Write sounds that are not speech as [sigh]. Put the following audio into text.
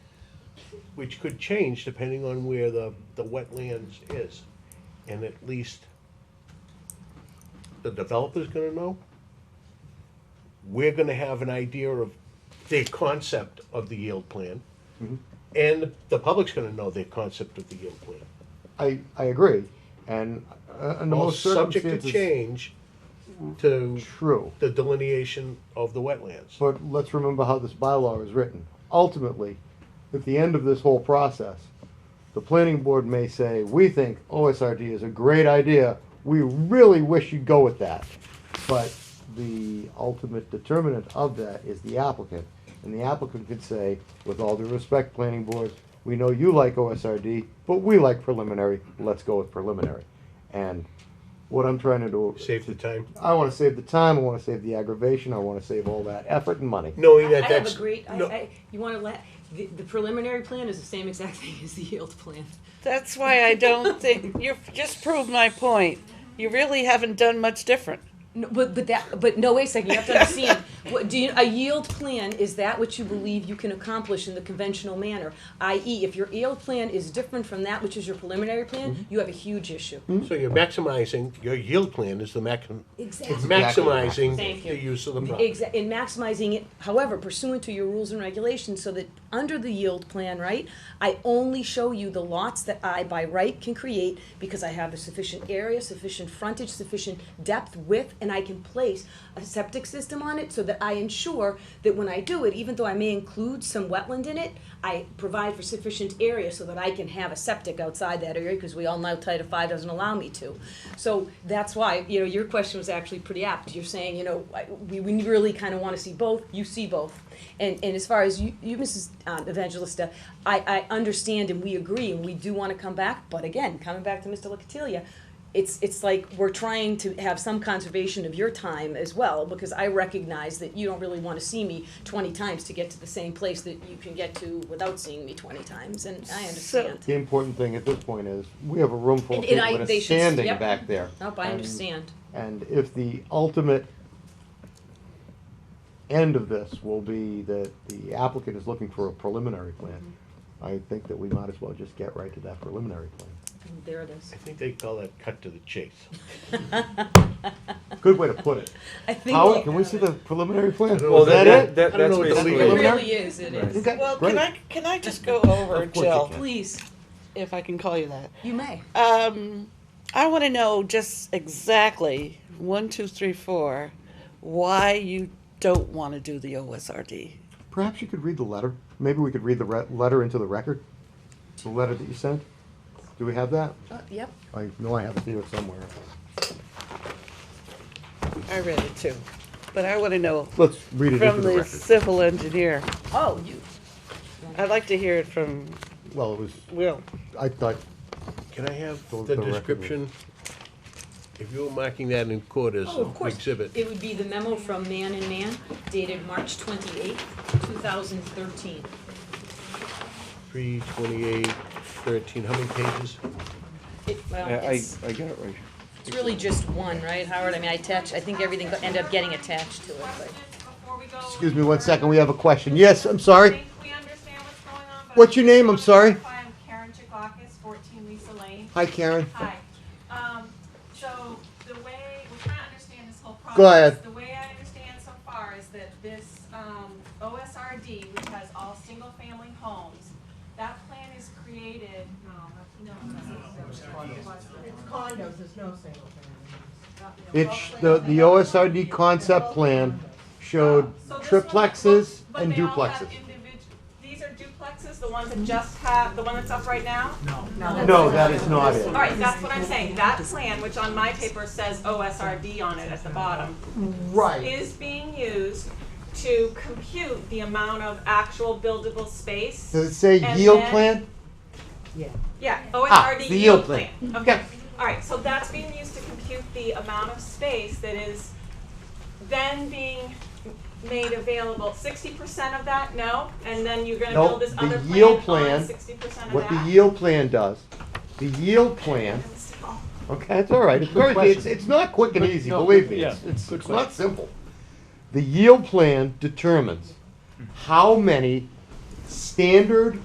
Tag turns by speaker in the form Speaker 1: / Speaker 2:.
Speaker 1: which could change depending on where the, the wetlands is. And at least the developer's gonna know. We're gonna have an idea of their concept of the yield plan.
Speaker 2: Mm-hmm.
Speaker 1: And the public's gonna know their concept of the yield plan.
Speaker 2: I, I agree, and uh, in the
Speaker 1: All
Speaker 2: most
Speaker 1: subject to
Speaker 2: circumstances,
Speaker 1: change to
Speaker 2: true.
Speaker 1: the delineation of the wetlands.
Speaker 2: But let's remember how this bylaw is written. Ultimately, at the end of this whole process, the planning board may say, we think OSRD is a great idea, we really wish you'd go with that. But the ultimate determinant of that is the applicant. And the applicant could say, with all due respect, planning board, we know you like OSRD, but we like preliminary, let's go with preliminary. And what I'm trying to do.
Speaker 1: Save the time,
Speaker 2: I want to save the time. I want to save the aggravation. I want to save all that effort and money.
Speaker 1: knowing
Speaker 3: I
Speaker 1: that
Speaker 3: have
Speaker 1: that's.
Speaker 3: a great, I,
Speaker 1: no-
Speaker 3: I, you wanna let, the, the preliminary plan is the same exact [laughs] thing as the yield plan.
Speaker 4: That's why I don't
Speaker 2: [laughs]
Speaker 4: think, you've just proved my point. You really haven't done much different.
Speaker 3: No, but, but that, but no, wait a second, you have to [laughs] understand, what, do you, a yield plan is that what you believe you can accomplish in the conventional manner? I.e., if your yield plan is different from that which is your preliminary plan, you have a huge issue.
Speaker 1: So you're maximizing, your yield plan is the maxim,
Speaker 3: Exactly.
Speaker 1: maximizing
Speaker 3: Thank you.
Speaker 1: the use of the property.
Speaker 3: Exa- in maximizing it, however, pursuant to your rules and regulations, so that under the yield plan, right, I only show you the lots that I by right can create because I have a sufficient area, sufficient frontage, sufficient depth, width, and I can place a septic system on it so that I ensure that when I do it, even though I may include some wetland in it, I provide for sufficient area so that I can have a septic outside that area, because we all know Title V doesn't allow me to. So that's why, you know, your question was actually pretty apt. You're saying, you know, I- we, we really kind of want to see both, you see both. And, and as far as you, you Mrs. um, Evangelista, I, I understand and we agree, and we do want to come back, but again, coming back to Mr. Locatilia, it's it's like we're trying to have some conservation of your time as well because I recognize that you don't really want to see me twenty times to get to the same place that you can get to without seeing me twenty times, and I understand.
Speaker 2: The important thing at this point is we have a room full of
Speaker 3: And- and
Speaker 2: people
Speaker 3: I-
Speaker 2: that
Speaker 3: they
Speaker 2: are
Speaker 3: should-
Speaker 2: standing
Speaker 3: yep.
Speaker 2: back there.
Speaker 3: Nope, I
Speaker 2: And-
Speaker 3: understand.
Speaker 2: And if the ultimate end of this will be that the applicant is looking for a preliminary plan, I think that we might as well just get right to that preliminary plan.
Speaker 3: And There it is.
Speaker 1: I think they call that cut to the [laughs] chase.
Speaker 2: Good way to put
Speaker 3: [laughs]
Speaker 2: it.
Speaker 3: I think.
Speaker 2: Howard, can we see the preliminary plan?
Speaker 1: don't know
Speaker 2: Is that it?
Speaker 1: I don't know what the
Speaker 3: It
Speaker 1: legal-
Speaker 3: really is. It is.
Speaker 2: Okay,
Speaker 4: Well,
Speaker 2: great.
Speaker 4: can I, can I just go over,
Speaker 2: Of course you
Speaker 4: Jill,
Speaker 2: can.
Speaker 3: Please,
Speaker 4: if I can call you that?
Speaker 3: you may.
Speaker 4: Um, I want to know just exactly one, two, three, four, why you don't want to do the OSRD.
Speaker 2: Perhaps you could read the letter. Maybe we could read the re- letter into the record. The letter that you sent. Do we have that?
Speaker 3: Uh, Yep.
Speaker 2: I know I have it here somewhere.
Speaker 4: I read it too, but I want to know
Speaker 2: Let's read it into
Speaker 4: from
Speaker 2: the
Speaker 4: the
Speaker 2: record.
Speaker 4: civil engineer.
Speaker 3: Oh, you.
Speaker 4: I'd like to hear it from
Speaker 2: Well, it was,
Speaker 4: Will.
Speaker 2: I thought,
Speaker 1: Can I have the
Speaker 2: The- the record.
Speaker 1: description? If you were marking that in court as an
Speaker 3: Oh, of course.
Speaker 1: exhibit,
Speaker 3: It would be the memo from Man and Man dated March twenty-eighth, two thousand thirteen.
Speaker 1: three twenty-eight, thirteen, how many pages?
Speaker 3: It, well,
Speaker 5: I, I,
Speaker 3: it's-
Speaker 5: I got it right.
Speaker 3: It's really just one, right, Howard? I mean, I attach, I think everything go- ended up getting attached to it, but.
Speaker 2: excuse me one second, we have a question. Yes, I'm sorry. What's
Speaker 6: What's
Speaker 2: your
Speaker 6: your
Speaker 2: name?
Speaker 6: name?
Speaker 2: I'm
Speaker 6: I'm sorry.
Speaker 2: sorry.
Speaker 6: I'm Karen Chikakis, 14 Lisa Lane.
Speaker 2: Hi, Karen.
Speaker 6: Hi. Um, so the way, we're trying to understand this whole process.
Speaker 2: Go ahead.
Speaker 6: The way I understand so far is that this, um, OSRD, which has all single-family homes, that plan is created, no, no.
Speaker 7: condos, there's no single
Speaker 2: It's, the, the OSRD concept plan showed
Speaker 6: Um, So this one-
Speaker 2: triplexes
Speaker 6: but
Speaker 2: and
Speaker 6: they all have
Speaker 2: duplexes.
Speaker 6: individ- These are duplexes, the ones that just have, the one that's up right now?
Speaker 2: No, that is not it.
Speaker 6: All right, that's what I'm saying. That plan, which on my paper says OSRD on it at the bottom,
Speaker 2: Right.
Speaker 6: is being used to compute the amount of actual buildable space.
Speaker 2: Does it say
Speaker 6: And
Speaker 2: yield
Speaker 6: then-
Speaker 2: plan?
Speaker 6: Yeah,
Speaker 2: Ah,
Speaker 6: OSRD
Speaker 2: the
Speaker 6: yield
Speaker 2: yield plan.
Speaker 6: plan. E Okay, all right, so that's being used to compute the amount of space that is then being made available. Sixty percent of that, no? And then you're gonna
Speaker 2: No,
Speaker 6: build this
Speaker 2: the
Speaker 6: other
Speaker 2: yield
Speaker 6: plan
Speaker 2: plan,
Speaker 6: on sixty percent of
Speaker 2: What
Speaker 6: that?
Speaker 2: the yield plan does, the yield plan Okay, it's all right. It's very, it's, it's not quick and easy, believe me. It's, it's it's not simple. The yield plan determines how many standard